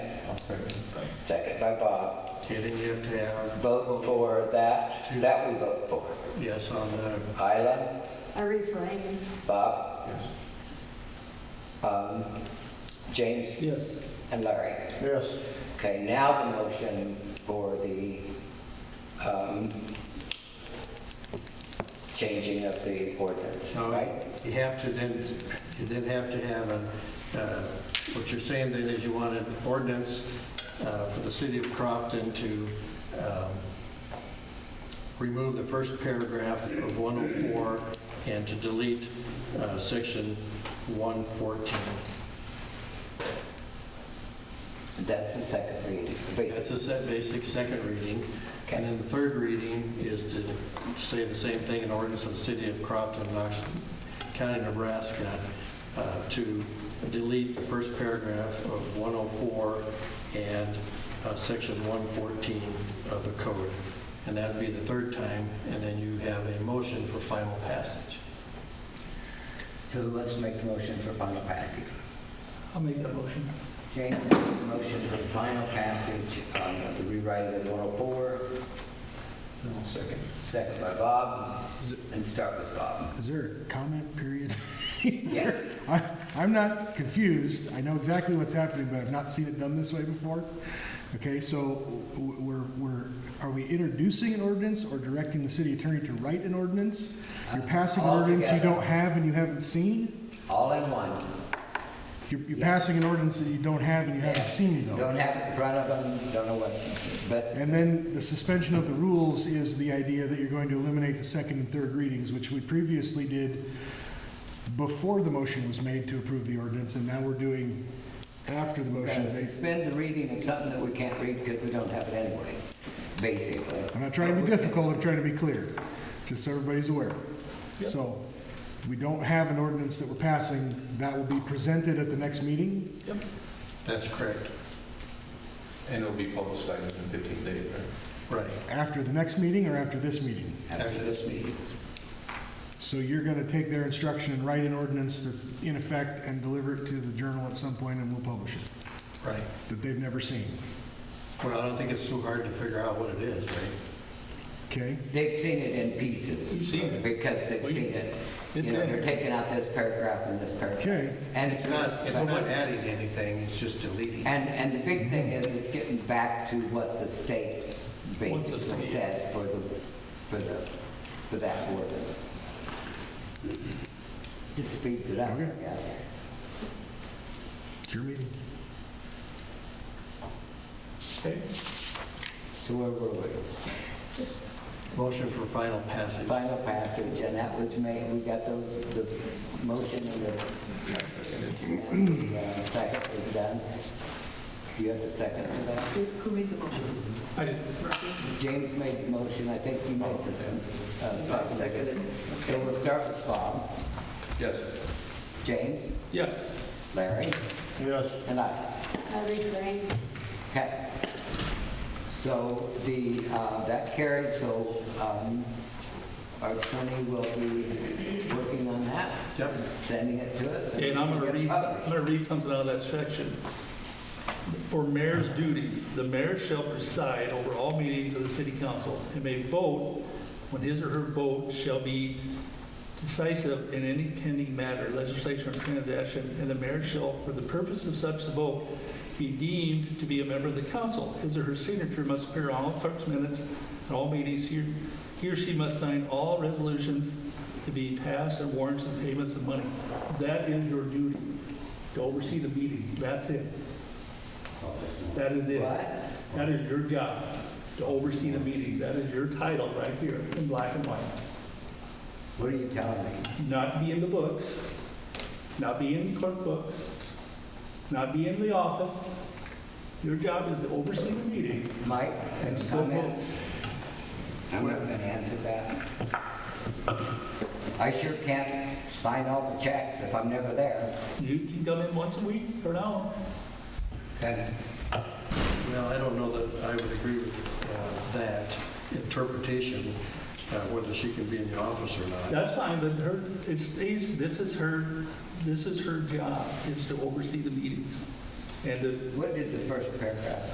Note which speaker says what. Speaker 1: Second by Bob.
Speaker 2: Getting you to have
Speaker 1: Vote for that, that we vote for.
Speaker 2: yes on the,
Speaker 1: Isla,
Speaker 3: I refrain.
Speaker 1: Bob, um, James,
Speaker 4: Yes.
Speaker 1: and Larry.
Speaker 4: Yes.
Speaker 1: Okay, now the motion for the um, changing of the ordinance,
Speaker 2: so
Speaker 1: right?
Speaker 2: you have to then, you then have to have a, uh, what you're saying then is you want an ordinance uh, for the city of Crofton to um, remove the first paragraph of 104 and to delete uh, section 114.
Speaker 1: That's the second reading.
Speaker 2: That's a set basic second reading. And then the third reading is to say the same thing, an ordinance of the city of Crofton, Knox County, Nebraska, uh, to delete the first paragraph of 104 and uh, section 114 of the code. And that'd be the third time, and then you have a motion for final passage.
Speaker 1: So who wants to make the motion for final passage?
Speaker 4: I'll make that motion.
Speaker 1: James makes a motion for final passage on the rewriting of 104.
Speaker 4: second.
Speaker 1: Second by Bob, and start with Bob.
Speaker 5: Is there a comment period?
Speaker 1: Yeah,
Speaker 5: I, I'm not confused. I know exactly what's happening, but I've not seen it done this way before. Okay, so w- we're, we're, are we introducing an ordinance or directing the city attorney to write an ordinance? You're passing an ordinance you
Speaker 1: Altogether.
Speaker 5: don't have and you haven't seen?
Speaker 1: all in one.
Speaker 5: You're, you're
Speaker 1: Yeah.
Speaker 5: passing an ordinance that you don't have and you haven't seen though.
Speaker 1: Don't have it in front of them, don't know what, but,
Speaker 5: And then the suspension of the rules is the idea that you're going to eliminate the second and third readings, which we previously did before the motion was made to approve the ordinance, and now we're doing after the motion is
Speaker 1: gotta
Speaker 5: made.
Speaker 1: suspend the reading of something that we can't read because we don't have it anyway, basically.
Speaker 5: I'm not trying to be difficult, I'm trying to be clear, just so everybody's aware. So, we don't have an ordinance that we're passing, that will be presented at the next meeting?
Speaker 2: That's correct.
Speaker 6: And it'll be publicized in 15 days, right?
Speaker 2: Right.
Speaker 5: After the next meeting or after this meeting?
Speaker 2: After this meeting.
Speaker 5: So you're gonna take their instruction and write an ordinance that's in effect and deliver it to the journal at some point and we'll publish it,
Speaker 2: Right.
Speaker 5: that they've never seen,
Speaker 2: Well, I don't think it's too hard to figure out what it is, right?
Speaker 5: okay?
Speaker 1: They've seen it in pieces. Because they've seen it. You know, they're taking out this paragraph and this paragraph.
Speaker 5: Okay.
Speaker 1: And
Speaker 2: It's not, it's not adding anything, it's just deleting.
Speaker 1: And, and the big thing is, it's getting back to what the state basically says for the, for the, for that ordinance. Just speeds it up, I
Speaker 5: Okay.
Speaker 1: guess.
Speaker 5: It's your meeting.
Speaker 1: So where were we?
Speaker 2: Motion for final passage.
Speaker 1: Final passage, and that was made, we got those, the motion and the, and the uh, second is done. Do you have the second for that?
Speaker 3: Who who made the motion?
Speaker 4: I did.
Speaker 1: James made the motion, I think you made the uh, second. So we'll start with Bob.
Speaker 6: Yes.
Speaker 1: James,
Speaker 4: Yes.
Speaker 1: Larry,
Speaker 4: Yes.
Speaker 1: and I.
Speaker 3: I refrain.
Speaker 1: Okay. So the, uh, that carries, so um, our attorney will be working on that,
Speaker 2: Yep.
Speaker 1: sending it to us.
Speaker 4: And I'm gonna
Speaker 1: we'll
Speaker 4: read,
Speaker 1: get it
Speaker 4: I'm
Speaker 1: published.
Speaker 4: gonna read something out of that section. For mayor's duties, the mayor shall preside over all meetings of the city council and may vote when his or her vote shall be decisive in any pending matter, legislation or transaction, and the mayor shall, for the purpose of such vote, be deemed to be a member of the council. His or her signature must appear on all clerk's minutes at all meetings. He or- He or she must sign all resolutions to be passed and warrants and payments of money. That is your duty, to oversee the meeting. That's it. That is it.
Speaker 1: What?
Speaker 4: That is your job, to oversee the meetings. That is your title right here in black and white
Speaker 1: What are you telling me?
Speaker 4: not be in the books, not be in the clerk books, not be in the office. Your job is to oversee the meeting
Speaker 1: Mike,
Speaker 4: and
Speaker 1: any
Speaker 4: still
Speaker 1: comments?
Speaker 4: vote.
Speaker 1: I'm not gonna answer that. I sure can't sign all the checks if I'm never there.
Speaker 4: You can come in once a week or an hour.
Speaker 1: Okay.
Speaker 2: Well, I don't know that I would agree with uh, that interpretation, uh, whether she can be in the office or not.
Speaker 4: That's fine, but her, it stays, this is her, this is her job, is to oversee the meetings. and the
Speaker 1: What is the first paragraph?